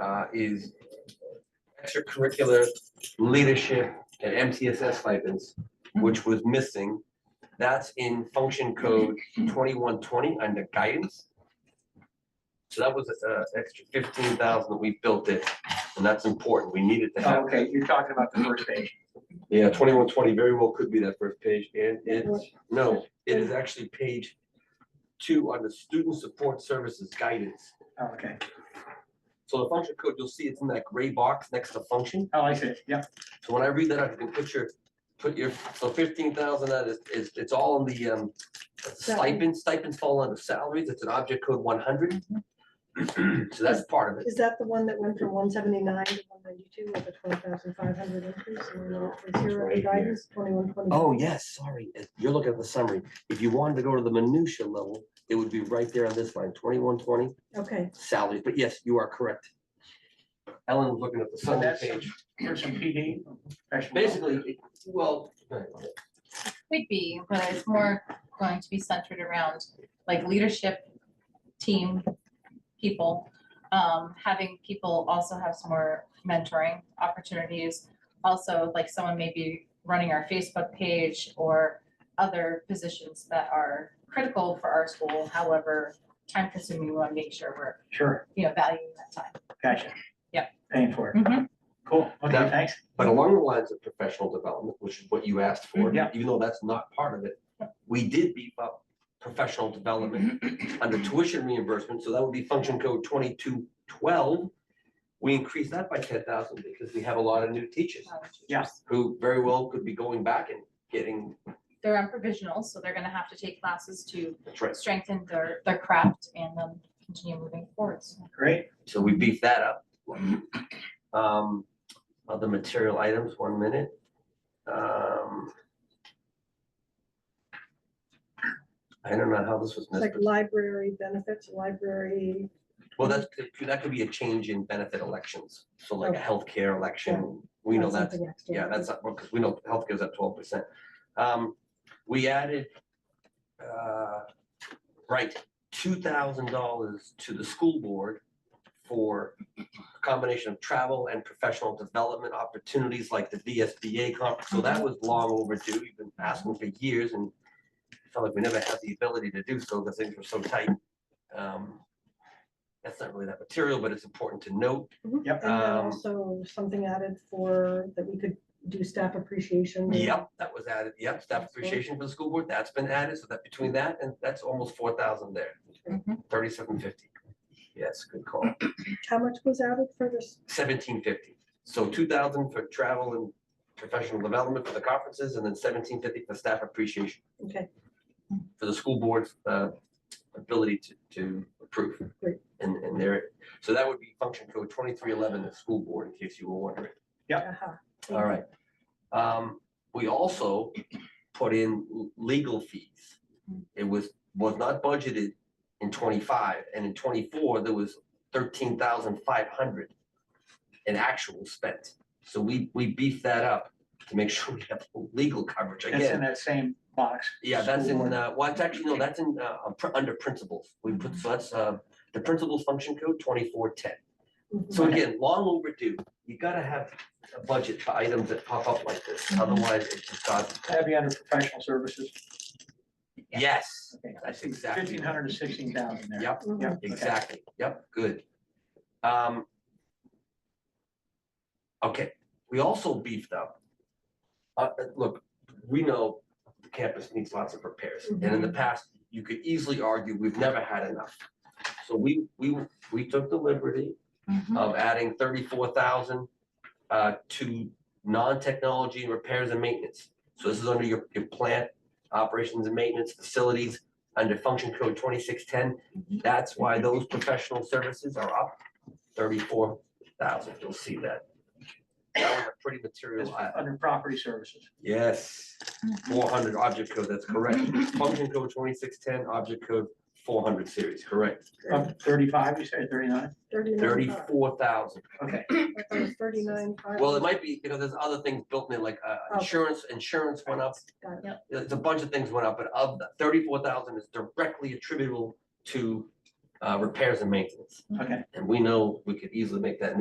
uh, is extracurricular leadership and MTSS stipends, which was missing. That's in function code twenty-one twenty under guidance. So that was uh extra fifteen thousand that we built it, and that's important. We needed to have. Okay, you're talking about the first page. Yeah, twenty-one twenty very well could be that first page, and it's, no, it is actually page two on the student support services guidance. Oh, Okay. So the function code, you'll see it's in that gray box next to function. Oh, I see. Yep. So when I read that, out, you can put your, put your, so fifteen thousand, that is, is, it's all in the um stipend, stipends fall under salaries, it's an object code one hundred. So that's part of it. Is that the one that went from one seventy-nine to one ninety-two with a twelve thousand five hundred increase? and then No, from Zero right to here. guidance, twenty-one, twenty-two. Oh, yes, sorry, it- you're looking at the summary. If you wanted to go to the minutia level, it would be right there on this line, twenty-one twenty Okay, salaries, but yes, you are correct. Ellen was looking at the So summary that's page. for some PD. professional. Basically, it- well, Could be, but it's more going to be centered around like leadership, team, people. Um, having people also have some more mentoring opportunities. Also, like someone may be running our Facebook page or other positions that are critical for our school, however, time consuming, we want to make sure we're, Sure, you know, valuing that time. gotcha. Yep. Paying for it. Mhm. Cool. Okay, That- thanks. But along the lines of professional development, which is what you asked for, Yeah. even though that's not part of it, we did beef up professional development under tuition reimbursement, so that would be function code twenty-two twelve. We increased that by ten thousand because we have a lot of new teachers Yeah. who very well could be going back and getting, They're on provisionals, so they're gonna have to take classes to that's right. strengthen their, their craft and then continue moving forwards. Great. So we beefed that up. Um, other material items, one minute. Um. I don't know how this was it's missed. like but- library benefits, library, Well, that's, that could be a change in benefit elections, so like a Okay. healthcare election, we know that's that's, uh, something extra. yeah, that's, up because we know healthcare's at twelve percent. Um, we added, uh, right, two thousand dollars to the school board for a combination of travel and professional development opportunities like the VSBA conference, so that was long overdue, you've been asking for years and felt like we never had the ability to do so, because things were so tight. Um, That's not really that material, but it's important to note, Mhm. Yep. And then Um, also something added for, that we could do staff appreciation. yep, that was added, yep, staff That's cool. appreciation for the school board, that's been added, so that between that and that's almost four thousand there, Mm-hmm. Mhm. thirty-seven fifty. Yes, good call, How much was added for this? seventeen fifty, so two thousand for travel and professional development for the conferences, and then seventeen fifty for staff appreciation, Okay, for the school board's uh, ability to, to approve. Great. And, and there, so that would be function code twenty-three eleven, the school board, in case you were wondering. aha. All right. Um, we also put in l- legal fees. It was, was not budgeted in twenty-five, and in twenty-four, there was thirteen thousand five hundred in actual spent. So we, we beefed that up to make sure we have legal coverage It's in again. that same box. Yeah, that's in, School. uh, well, it's actually, no, that's in, uh, uh, pr- under principles. We put, so that's, uh, the principles function code twenty-four ten. Mhm. So again, long overdue, you gotta have a budget for items that pop up like this, otherwise it just got, Have you under professional services? yes, Okay. that's exactly. Fifteen hundred to sixteen thousand there. Yep, Mhm. Yeah, okay. exactly, yep, good. Um. Okay, we also beefed up. Uh, uh, look, we know the campus needs lots of repairs, and in the past, you could easily argue, we've never had enough. So we, we, we took the liberty Mm-hmm. of adding thirty-four thousand uh to non-technology and repairs and maintenance. So this is under your your plant operations and maintenance facilities under function code twenty-six ten. That's why those professional services are up thirty-four thousand. You'll see that. That was a pretty It's material item. under property services. Yes, four hundred object code, that's correct. Function code twenty-six ten, object code four hundred series, correct. Up thirty-five, you said thirty-nine? Thirty-nine. five. Thirty-four thousand. Okay, I thought it was Thirty-nine. five. Well, it might be, because there's other things built in, like uh, Oh. insurance, insurance went up, Got it. there's a bunch of things went up, but of the thirty-four thousand is directly attributable to uh, repairs and maintenance. Okay. And we know we could easily make that